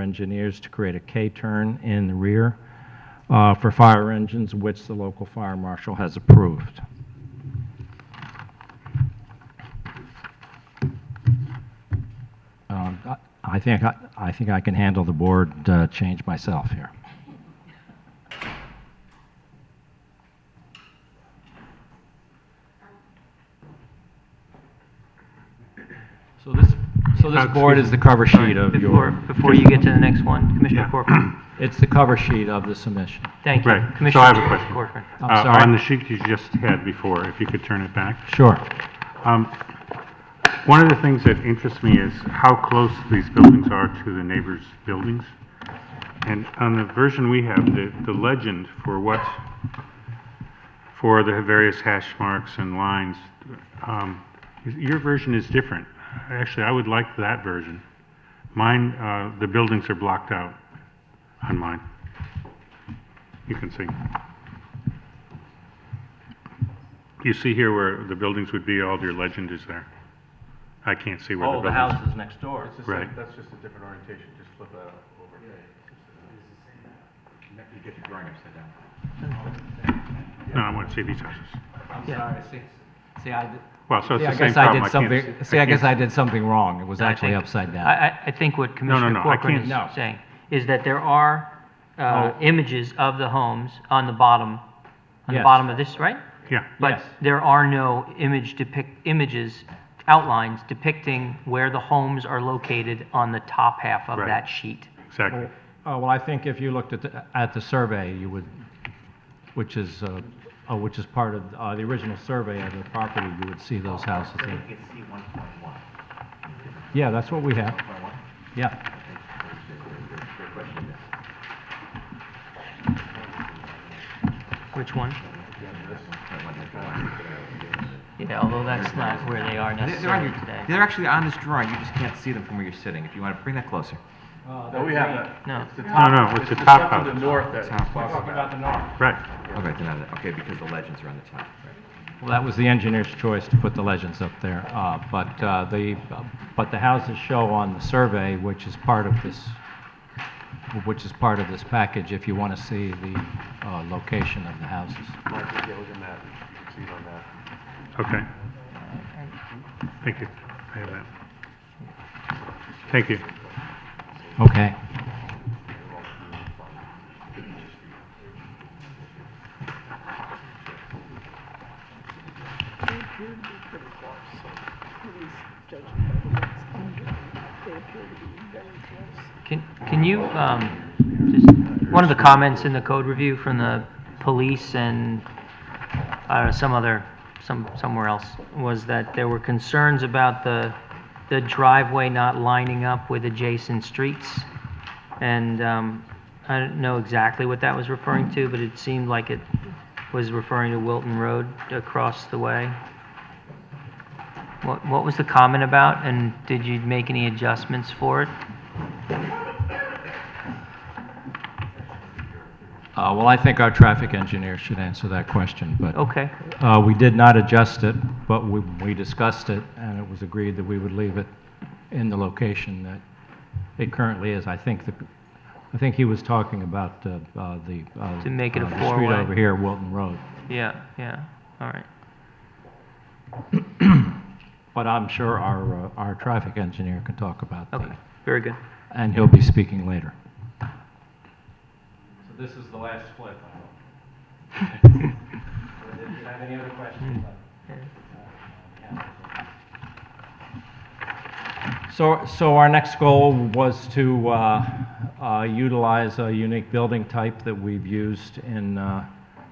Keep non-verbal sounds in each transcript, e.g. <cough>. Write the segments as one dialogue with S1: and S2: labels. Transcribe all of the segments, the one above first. S1: engineers to create a K-turn in the rear uh, for fire engines, which the local fire marshal has approved. Um, I- I think, I I think I can handle the board uh, change myself here. So this, so this board is the cover sheet of your...
S2: Before, before you get to the next one, Commissioner
S3: Yeah. <clears throat>
S2: Corcoran.
S1: It's the cover sheet of the submission.
S2: Thank you.
S3: Right. So I
S2: Commissioner
S3: have a question.
S2: Corcoran.
S1: I'm
S3: Uh,
S1: sorry.
S3: On the sheet you just had before, if you could turn it back.
S1: Sure.
S3: Um, One of the things that interests me is how close these buildings are to the neighbors' buildings. And on the version we have, the, the legend for what, for the various hash marks and lines, um, your version is different. Actually, I would like that version. Mine, uh, the buildings are blocked out on mine. You can see. You see here where the buildings would be, all your legend is there. I can't see where the
S4: Oh, the
S3: buildings.
S4: house is next door.
S3: a- Right.
S5: That's just a different orientation, just flip that over. You get the drawing upside down.
S3: No, I want to see these houses.
S1: I'm sorry, see, see, I did...
S3: Well, so it's
S1: See, I
S3: the same
S1: guess I did
S3: problem. can't
S1: something,
S3: s-
S1: see, I guess I
S3: can't-
S1: did something wrong. It was
S2: I
S1: actually
S2: think-
S1: upside
S2: I,
S1: down.
S2: I, I think what
S3: no,
S2: Commissioner
S3: I
S2: Corcoran
S3: can't-
S1: No.
S3: Oh.
S2: is saying is that there are, uh, images of the homes on the bottom, on the
S1: Yes.
S2: bottom of this, right?
S3: Yeah,
S2: But
S1: Yes.
S2: there are no image depict, images, outlines depicting where the homes are located on the top half of
S3: Right.
S2: that sheet.
S3: exactly.
S1: Oh, well, I think if you looked at, the- at the survey, you would, which is, uh, uh, which is part of, uh, the original survey of the property, you would see those houses there. Yeah, that's what we have. Yeah.
S2: Which one? Yeah, although that's not where they are
S6: They're- They're, on
S2: necessarily
S6: your-
S2: today.
S6: they're actually on this drawing, you just can't see them from where you're sitting. If you want to bring that closer.
S5: No, we have that.
S2: No.
S1: Oh.
S5: It's the
S3: No,
S5: top-
S3: no, it's the top
S5: stuff to
S3: house.
S5: the north that
S6: Top house.
S5: talking about the north.
S3: Right.
S6: Okay, they're not- okay, because the legends are on the top.
S1: Well, that was the engineer's choice to put the legends up there, uh, but, uh, the, but the houses show on the survey, which is part of this, which is part of this package, if you want to see the, uh, location of the houses.
S5: Mike, yeah, look at that. You can see it on that.
S3: Okay. Thank you. I have that. Thank you.
S1: Okay.
S2: Can, can you, um, just, one of the comments in the code review from the police and, I don't know, some other, some, somewhere else, was that there were concerns about the, the driveway not lining up with adjacent streets. And, um, I don't know exactly what that was referring to, but it seemed like it was referring to Wilton Road across the way. What, what was the comment about, and did you make any adjustments for it?
S1: Uh, Well, I think our traffic engineer should answer that question, but
S2: Okay,
S1: uh, we did not adjust it, but we we discussed it, and it was agreed that we would leave it in the location that it currently is. I think, the- I think he was talking about uh, uh, the... uh,
S2: To make it a
S1: uh, The
S2: four-way.
S1: street over here, Wilton Road.
S2: yeah, yeah, all right.
S1: But I'm sure our, uh, our traffic engineer can talk about
S2: Okay,
S1: that,
S2: very good.
S1: and he'll be speaking later. So this is the last flip,
S2: <laughs>
S1: Do you have any other questions? So, so our next goal was to uh, uh, utilize a unique building type that we've used in, uh,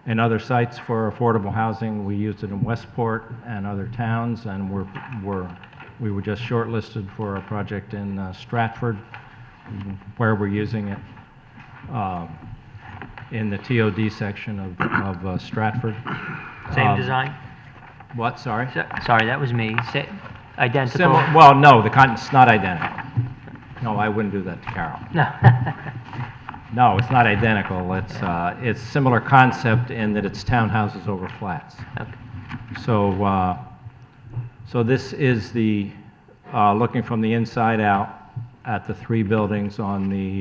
S1: in other sites for affordable housing. We used it in Westport and other towns, and we're, we're, we were just shortlisted for a project in uh, Stratford, where we're using it um, in the TOD section of, of uh, Stratford.
S2: Same
S1: Um,
S2: design?
S1: What, sorry?
S2: So- Sorry, that was me. Sa- Identical?
S1: Simi- Well, no, the con, it's not identical. No, I wouldn't do that to Carol.
S2: <laughs> No. <laughs>
S1: No, it's not identical. It's, uh, it's similar concept in that it's townhouses over flats.
S2: Okay.
S1: So, uh, so this is the, uh, looking from the inside out at the three buildings on the